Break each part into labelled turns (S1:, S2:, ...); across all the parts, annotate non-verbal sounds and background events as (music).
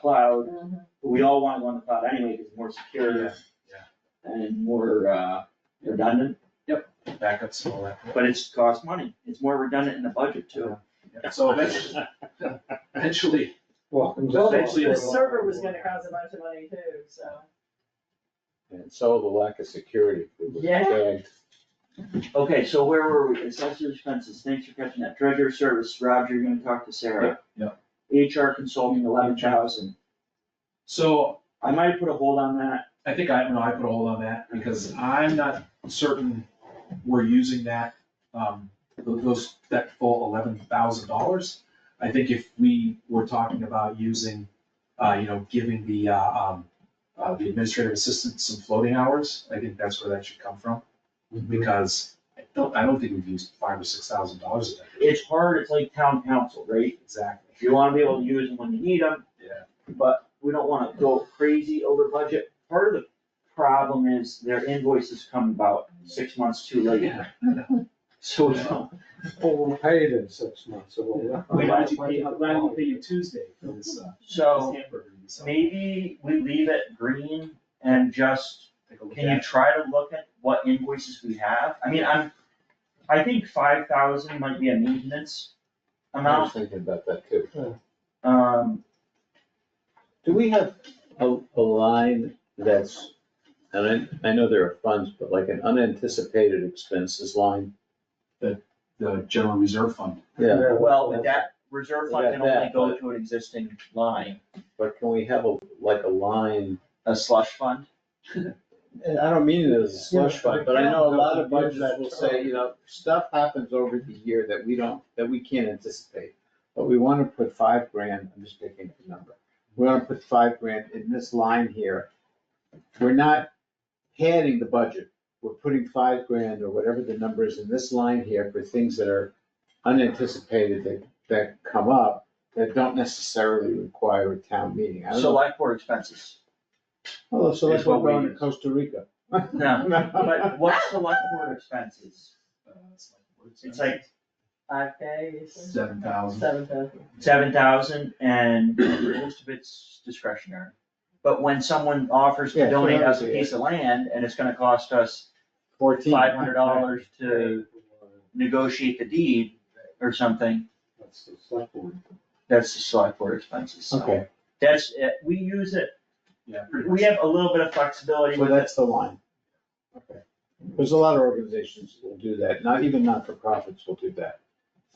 S1: cloud, but we all wanna go on the cloud anyway, cause it's more secure
S2: Yeah,
S1: and more, uh, redundant,
S2: backups and all that.
S1: but it's cost money, it's more redundant in the budget too.
S2: Yeah, So eventually, eventually,
S3: Well, and
S2: Well,
S3: just
S2: the-
S3: actually,
S2: the
S4: The server was gonna cost a bunch of money too, so.
S5: And so the lack of security. we were
S4: Yeah.
S5: tagged.
S1: Okay, so where were we? Assessor expenses, thanks for catching that. Treasurer service, Roger, you're gonna talk to Sarah.
S2: Yep,
S1: HR consulting, eleven thousand.
S2: so
S1: I might have put a hold on that.
S2: I think I, no, I put a hold on that because I'm not certain we're using that, um, th- those, that full eleven thousand dollars. I think if we were talking about using, uh, you know, giving the, uh, um, uh, the administrative assistant some floating hours, I think that's where that should come from. Because I don't, I don't think we've used five or six thousand dollars of that.
S1: It's hard, it's like town council, right?
S2: Exactly,
S1: You wanna be able to use them when you need them,
S2: yeah.
S1: but we don't wanna go crazy over budget. Part of the problem is their invoices come about six months too late,
S2: Yeah, I know.
S1: so we don't.
S3: overpaid in six months, so.
S2: I'm glad you paid, I'm glad you paid you Tuesday for this, uh,
S1: So
S2: this hamburger you sold.
S1: maybe we leave it green and just
S2: Take a look
S1: Can
S2: at
S1: you
S2: it.
S1: try to look at what invoices we have? I mean, I'm, I think five thousand might be a maintenance
S5: I was
S1: amount,
S5: thinking about that too.
S1: um,
S5: Do we have a, a line that's, and I, I know there are funds, but like an unanticipated expenses line?
S2: The general reserve fund.
S5: Yeah,
S1: well, that reserve fund can
S5: Yeah,
S1: only
S5: that,
S1: go to an existing line,
S5: but can we have a, like a line?
S1: a slush fund.
S5: And I don't mean it as a slush fund, but I know a lot of budgets will say, you know, stuff happens over the year that we don't, that we can't anticipate. But we wanna put five grand, I'm just picking a number, we wanna put five grand in this line here. We're not padding the budget, we're putting five grand or whatever the number is in this line here for things that are unanticipated that, that come up, that don't necessarily require a town meeting. I don't know,
S1: Select board expenses.
S5: oh, so that's
S1: is what
S5: why we're
S1: we
S5: going to
S1: use.
S5: Costa Rica.
S1: No, (laughs) but what's select board expenses?
S2: uh, it's like, what's
S1: It's
S2: that?
S1: like
S4: Five days.
S2: Seven thousand.
S4: Seven thousand.
S1: seven thousand and most of it's discretionary. But when someone offers
S5: Yeah,
S1: to
S5: so
S1: donate us a
S5: obviously,
S1: piece of land and it's gonna cost us
S5: Fourteen.
S1: five hundred dollars to negotiate the deed or something,
S3: That's the select board.
S1: that's the select board expenses, so.
S5: Okay,
S1: That's, it. we use it,
S2: Yeah, pretty much.
S1: we have a little bit of flexibility
S5: so
S1: with it,
S5: that's the line. Okay. There's a lot of organizations that will do that, not even not-for-profits will do that.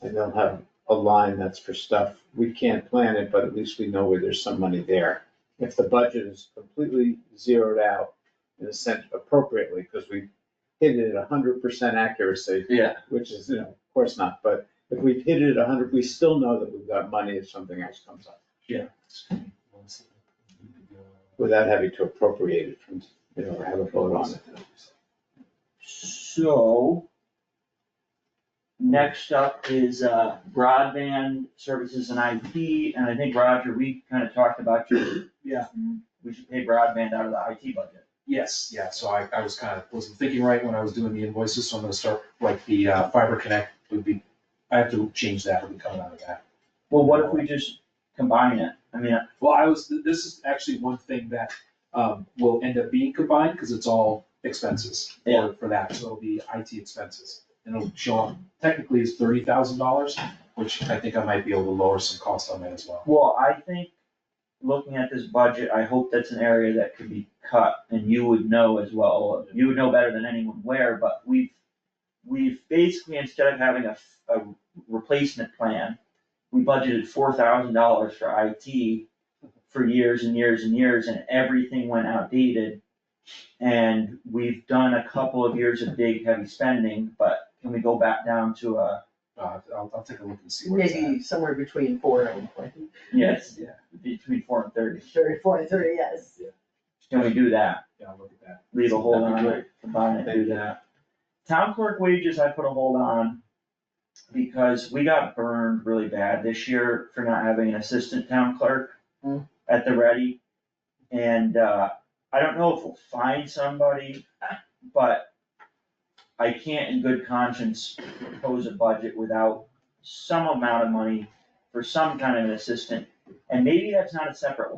S5: And they'll have a line that's for stuff, we can't plan it, but at least we know where there's some money there. If the budget is completely zeroed out, in a sense appropriately, because we hit it at hundred percent accuracy,
S1: yeah.
S5: which is, you know, of course not, but if we hit it at hundred, we still know that we've got money if something else comes up, without having to appropriate it from, you know, or have a vote on it.
S1: So. Next up is uh, broadband services and IT, and I think Roger, we kind of talked about your.
S2: Yeah.
S1: We should pay broadband out of the IT budget.
S2: Yes, yeah, so I, I was kind of, wasn't thinking right when I was doing the invoices, so I'm gonna start, like, the uh, fiber connect would be, I have to change that, would be coming out of that.
S1: Well, what if we just combine it? I mean,
S2: Well, I was, th- this is actually one thing that, um, will end up being combined, because it's all expenses
S1: Yeah.
S2: for, for that, so it'll be IT expenses. And it'll show up technically as thirty thousand dollars, which I think I might be able to lower some cost on that as well.
S1: well, I think, looking at this budget, I hope that's an area that could be cut, and you would know as well, you would know better than anyone where, but we've. We've basically, instead of having a, f- a replacement plan, we budgeted four thousand dollars for IT for years and years and years, and everything went outdated. And we've done a couple of years of big heavy spending, but can we go back down to a,
S2: Uh, I'll, I'll take a look and see where it's at.
S4: Maybe somewhere between four and twenty,
S1: yes,
S2: Yeah.
S1: between four and thirty,
S4: thirty, four and thirty, yes.
S1: can we do that?
S2: Yeah, I'll look at that.
S1: leave a hold
S5: That'd
S1: on
S5: be
S1: it, combine it, do that. Town clerk wages, I put a hold on because we got burned really bad this year for not having an assistant town clerk
S4: Hmm.
S1: at the ready. And, uh, I don't know if we'll find somebody, but I can't in good conscience propose a budget without some amount of money for some kind of an assistant. And maybe that's not a separate